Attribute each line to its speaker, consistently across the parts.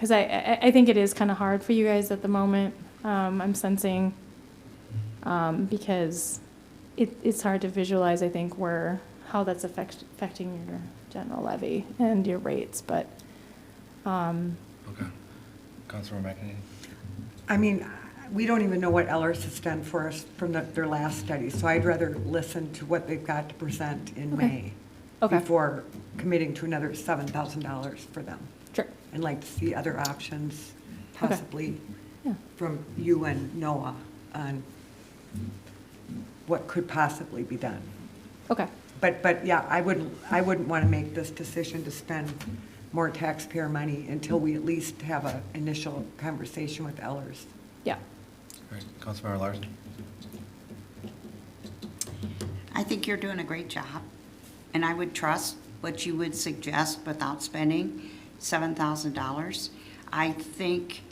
Speaker 1: because I, I, I think it is kind of hard for you guys at the moment. Um, I'm sensing, um, because it, it's hard to visualize, I think, where, how that's affect, affecting your general levy and your rates, but, um,
Speaker 2: Okay. Councilor McEnany?
Speaker 3: I mean, we don't even know what Ellers has done for us from the- their last study, so I'd rather listen to what they've got to present in
Speaker 1: Okay.
Speaker 3: May
Speaker 1: okay,
Speaker 3: before committing to another $7,000 for them.
Speaker 1: sure,
Speaker 3: I'd like to see other options
Speaker 1: Okay.
Speaker 3: possibly
Speaker 1: yeah,
Speaker 3: from you and Noah on what could possibly be done.
Speaker 1: okay,
Speaker 3: But, but yeah, I wouldn't, I wouldn't want to make this decision to spend more taxpayer money until we at least have an initial conversation with Ellers.
Speaker 1: yeah.
Speaker 2: All right, Councilmember Larson?
Speaker 4: I think you're doing a great job, and I would trust what you would suggest without spending seven thousand dollars. I think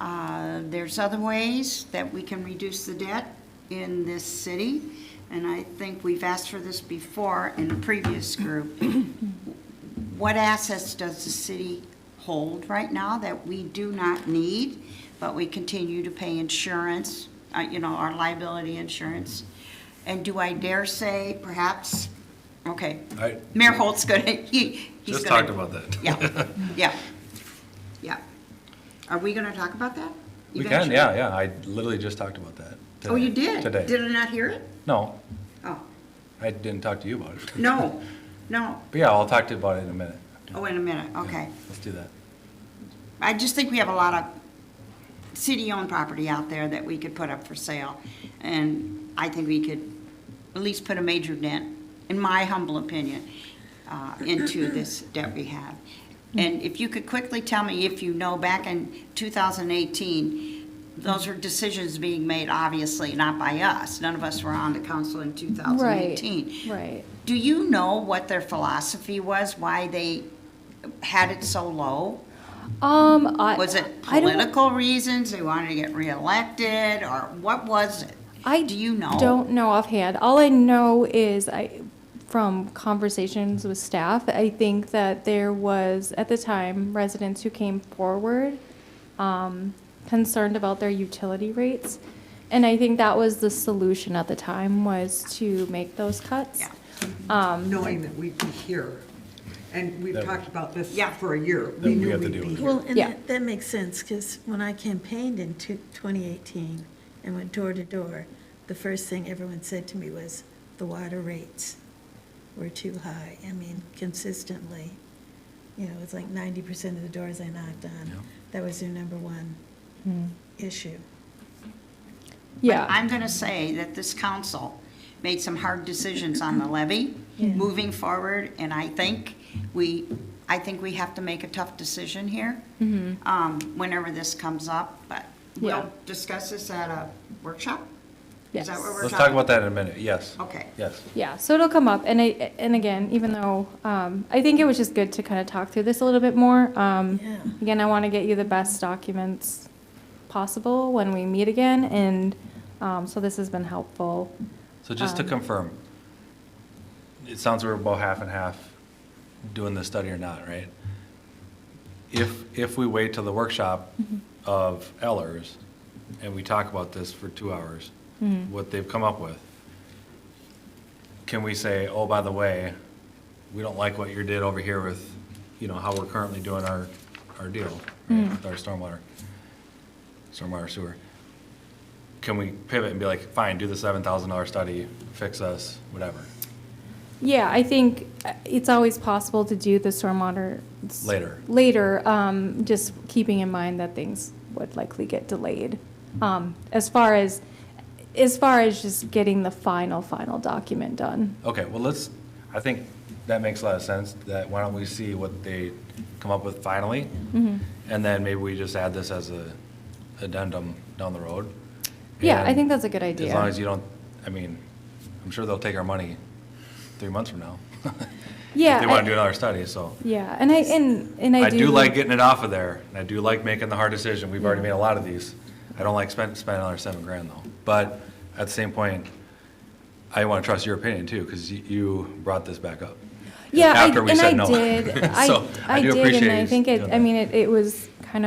Speaker 4: uh, there's other ways that we can reduce the debt in this city, and I think we've asked for this before in the previous group. What assets does the city hold right now that we do not need, but we continue to pay insurance, uh, you know, our liability insurance? And do I dare say perhaps, okay,
Speaker 2: I
Speaker 4: Mayor Holt's gonna, he, he's
Speaker 2: just
Speaker 4: gonna-
Speaker 2: talked about that.
Speaker 4: Yeah, yeah, yeah. Are we gonna talk about that?
Speaker 2: We can, yeah, yeah. I literally just talked about that.
Speaker 4: Oh, you
Speaker 2: today-
Speaker 4: did? Did
Speaker 2: Today.
Speaker 4: I not hear it?
Speaker 2: No,
Speaker 4: Oh,
Speaker 2: I didn't talk to you about it.
Speaker 4: no, no.
Speaker 2: But yeah, I'll talk to you about it in a minute.
Speaker 4: Oh, wait a minute,
Speaker 2: Yeah,
Speaker 4: okay.
Speaker 2: Let's do that.
Speaker 4: I just think we have a lot of city-owned property out there that we could put up for sale. And I think we could at least put a major dent, in my humble opinion, uh, into this debt we have. And if you could quickly tell me if you know, back in 2018, those were decisions being made, obviously, not by us. None of us were on the council in 2018.
Speaker 1: Right,
Speaker 4: Do you know what their philosophy was, why they had it so low?
Speaker 1: um, I.
Speaker 4: Was it
Speaker 1: I don't-
Speaker 4: political reasons, they wanted to get reelected, or what was it?
Speaker 1: I
Speaker 4: Do you know?
Speaker 1: Don't know offhand. All I know is I, from conversations with staff, I think that there was at the time residents who came forward um, concerned about their utility rates, and I think that was the solution at the time was to make those cuts.
Speaker 4: Yeah.
Speaker 3: knowing that we'd be here. And we've
Speaker 2: That-
Speaker 3: talked about this
Speaker 4: Yeah.
Speaker 3: for a year.
Speaker 2: That we
Speaker 3: We knew
Speaker 2: have to
Speaker 3: we'd
Speaker 2: deal
Speaker 3: be
Speaker 2: with it.
Speaker 3: here.
Speaker 5: Well, and
Speaker 1: Yeah.
Speaker 5: that, that makes sense, because when I campaigned in two- 2018 and went door to door, the first thing everyone said to me was, the water rates were too high. I mean, consistently, you know, it's like 90% of the doors I knocked
Speaker 2: Yeah.
Speaker 5: on, that was their number one issue.
Speaker 1: Yeah.
Speaker 4: But I'm gonna say that this council made some hard decisions on the levy, moving forward, and I think we, I think we have to make a tough decision here, um, whenever this comes up, but
Speaker 1: Mm-hmm. Yeah.
Speaker 4: we'll discuss this at a workshop? Is that
Speaker 1: Yes.
Speaker 4: what we're
Speaker 2: Let's talk about that in a minute, yes.
Speaker 4: Okay.
Speaker 2: Yes.
Speaker 1: Yeah, so it'll come up, and I, and again, even though, um, I think it was just good to kind of talk through this a little bit more. Um,
Speaker 5: Yeah.
Speaker 1: again, I want to get you the best documents possible when we meet again, and, um, so this has been helpful.
Speaker 2: So just to
Speaker 1: Um,
Speaker 2: confirm, it sounds we're about half and half doing the study or not, right? If, if we wait till the workshop of Ellers and we talk about this for two hours, what they've come up with, can we say, oh, by the way, we don't like what you did over here with, you know, how we're currently doing our, our deal, right, with our stormwater, stormwater sewer? Can we pivot and be like, fine, do the seven thousand dollar study, fix us, whatever?
Speaker 1: Yeah, I think uh, it's always possible to do the stormwater. s-
Speaker 2: Later.
Speaker 1: Later, um, just keeping in mind that things would likely get delayed. Um, as far as, as far as just getting the final, final document done.
Speaker 2: Okay, well, let's, I think that makes a lot of sense, that why don't we see what they come up with finally?
Speaker 1: Mm-hmm.
Speaker 2: And then maybe we just add this as a addendum down the road.
Speaker 1: Yeah, I
Speaker 2: And
Speaker 1: think that's a good idea.
Speaker 2: As long as you don't, I mean, I'm sure they'll take our money three months from now.
Speaker 1: Yeah,
Speaker 2: If they want
Speaker 1: I-
Speaker 2: to do another study, so.
Speaker 1: Yeah, and I, and, and I do.
Speaker 2: I do like getting it off of there, and I do like making the hard decision, we've already made a lot of these. I don't like spending, spending another seven grand though, but at the same point, I want to trust your opinion too, because you brought this back up.
Speaker 1: Yeah, I-
Speaker 2: after we
Speaker 1: and
Speaker 2: said
Speaker 1: I
Speaker 2: no.
Speaker 1: did. I
Speaker 2: So I do
Speaker 1: did,
Speaker 2: appreciate
Speaker 1: And I
Speaker 2: you
Speaker 1: think it,
Speaker 2: doing
Speaker 1: I
Speaker 2: that.
Speaker 1: mean, it it was kind of